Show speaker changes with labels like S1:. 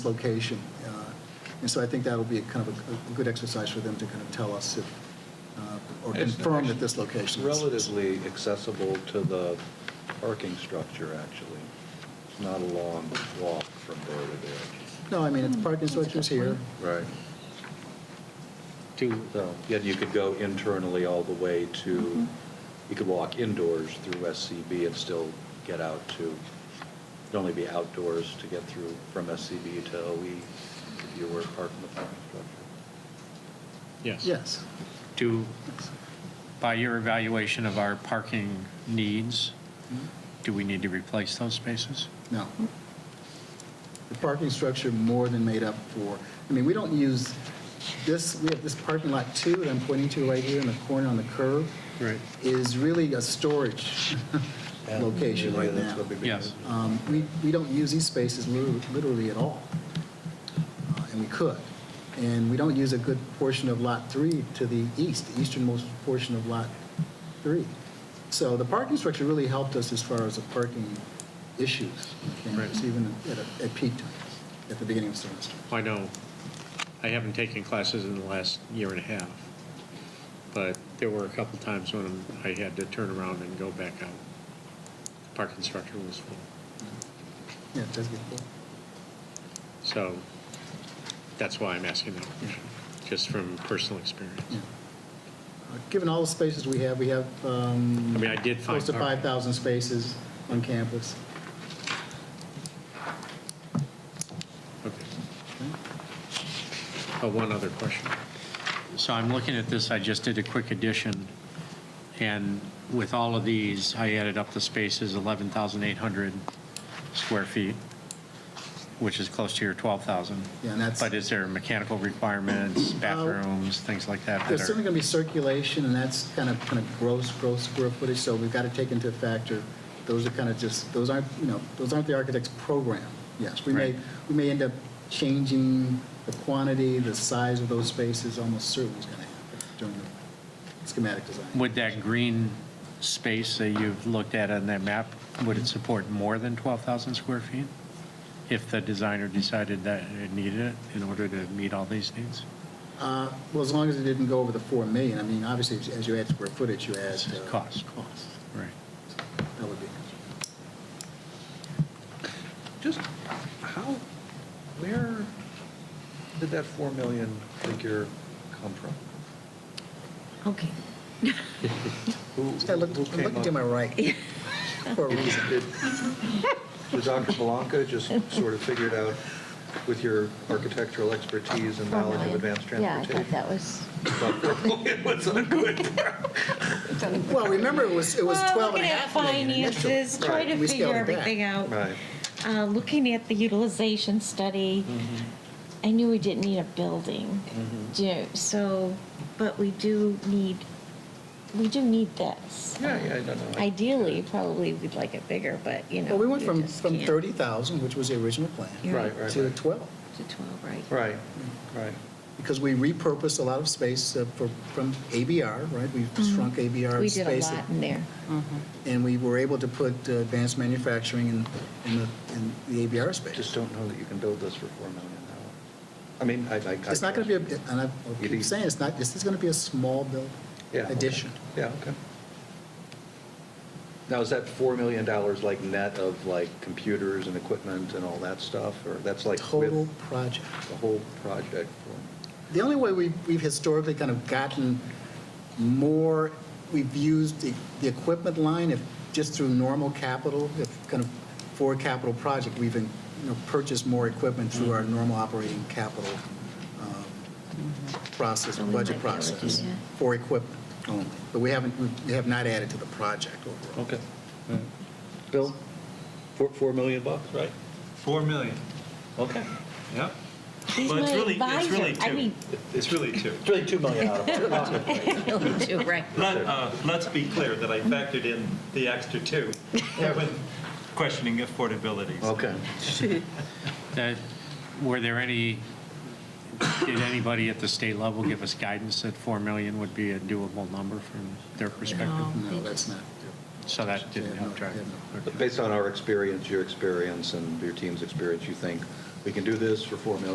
S1: location. Uh, And so I think that'll be a kind of a- a good exercise for them to kind of tell us if, uh, or
S2: It's
S1: confirm that this location is.
S3: Relatively accessible to the parking structure, actually. It's not a long walk from there to there.
S1: No, I mean, if the parking
S4: That's a good
S1: structure's here.
S3: Right. So, yeah, you could go internally all the way to, you could walk indoors through SCB and still get out to, it'd only be outdoors to get through from SCB to OE if you were parking the parking structure.
S5: Yes.
S1: Yes.
S5: Do, by your evaluation of our parking needs, do we need to replace those spaces?
S1: No. The parking structure more than made up for, I mean, we don't use this, we have this parking lot two that I'm pointing to right here in the corner on the curve.
S5: Right.
S1: Is really a storage
S3: And
S1: location
S3: really,
S1: right
S3: that's
S1: now.
S3: what we've been
S5: Yes.
S3: using.
S1: Um, We, we don't use these spaces lit- literally at all, Uh, and we could. And we don't use a good portion of Lot 3 to the east, the easternmost portion of Lot 3. So the parking structure really helped us as far as the parking issues on campus,
S5: Right.
S1: even at a- at peak times, at the beginning of the semester.
S5: I know, I haven't taken classes in the last year and a half, but there were a couple times when I had to turn around and go back out. Parking structure was full.
S1: Yeah, it does get full.
S5: So that's why I'm asking that question, just from personal experience.
S1: Yeah. Uh, Given all the spaces we have, we have um,
S5: I mean, I did find.
S1: close to
S5: parking.
S1: 5,000 spaces on campus.
S5: Okay. Uh, One other question. So I'm looking at this, I just did a quick addition, and with all of these, I added up the spaces, 11,800 square feet, which is close to your 12,000.
S1: Yeah, and that's- Uh,
S5: But is there mechanical requirements, bathrooms, things like that? that
S1: There's
S5: are-
S1: certainly going to be circulation, and that's kind of, kind of gross, gross square footage, so we've got to take into factor, those are kind of just, those aren't, you know, those aren't the architect's program. Yes, we may,
S5: Right.
S1: we may end up changing the quantity, the size of those spaces, almost certainly is going to happen during the schematic design.
S5: Would that green space that you've looked at on that map, would it support more than 12,000 square feet? If the designer decided that it needed it in order to meet all these needs?
S1: Uh, Well, as long as it didn't go over the 4 million, I mean, obviously, as- as you add square footage, you add. uh,
S5: Cost.
S1: Cost,
S5: Right.
S1: that would be.
S3: Just how, where did that 4 million figure come from?
S4: Okay.
S3: Who
S1: I looked,
S3: who
S1: I'm
S3: came
S1: looking
S3: up-
S1: to my right for a reason.
S3: Did did Dr. Belanca just sort of figured out with your architectural expertise and knowledge of advanced
S4: Yeah, I thought
S3: transportation?
S4: that was.
S3: thought that was a good.
S1: Well, remember, it was, it was 12 and a half million
S6: Looking at
S1: initial.
S6: finances, trying
S1: Right.
S6: to
S1: We scaled
S6: figure
S1: it back.
S6: everything out,
S3: Right.
S6: Uh, looking at the utilization study.
S3: Mm-hmm.
S6: I knew we didn't need a building, Do you- so, but we do need, we do need this.
S3: Yeah, yeah, I don't know.
S6: Ideally, probably we'd like it bigger, but you know.
S1: Well, we went
S6: you
S1: from,
S6: just
S1: from
S6: can't.
S1: 30,000, which was the original plan,
S6: Yeah.
S3: Right, right,
S1: to
S3: right.
S1: 12,
S6: To 12, right?
S3: Right, right.
S1: because we repurposed a lot of space uh, for, from ABR, right? We shrunk ABR
S6: Mm-hmm. We did a
S1: space.
S6: lot in there.
S1: And we were able to put uh, advanced manufacturing in, in the, in the ABR
S3: Just
S1: space.
S3: don't know that you can build this for 4 million dollars. I mean, I, I.
S1: It's not going to be, a and I I'll
S3: It
S1: keep
S3: is-
S1: saying, it's not, this is going to be a small building
S3: Yeah, okay.
S1: addition.
S3: Yeah, okay. Now, is that $4 million like net of like computers and equipment and all that stuff? Or that's like
S1: Total
S3: with
S1: project.
S3: the whole project?
S1: The only way we- we've historically kind of gotten more, we've used the the equipment line if, just through normal capital, if kind of for a capital project, we've been, you know, purchased more equipment through our normal operating capital um, process,
S6: So we
S1: budget
S6: might be able to do
S1: process,
S6: that.
S1: for equipment only. But we haven't, we have not added to the project overall.
S3: Okay. Bill, four, 4 million bucks, right?
S7: Four million.
S3: Okay.
S7: Yeah.
S6: He's
S7: Well, it's
S6: my
S7: really- it's
S6: advisor.
S7: really
S6: I
S7: two.
S6: mean,
S7: It's really two.
S3: It's really 2 million out of it.
S6: really two, oh, right?
S7: Let, uh, let's be clear that I factored in the extra two when questioning affordability.
S3: Okay.
S5: That, were there any, did anybody at the state level give us guidance that 4 million would be a doable number from their perspective?
S1: No, that's not.
S5: So that didn't help drive.
S1: Yeah,
S5: it.
S1: no.
S5: Okay.
S3: But based on our experience, your experience, and your team's experience, you think we can do this for 4 million.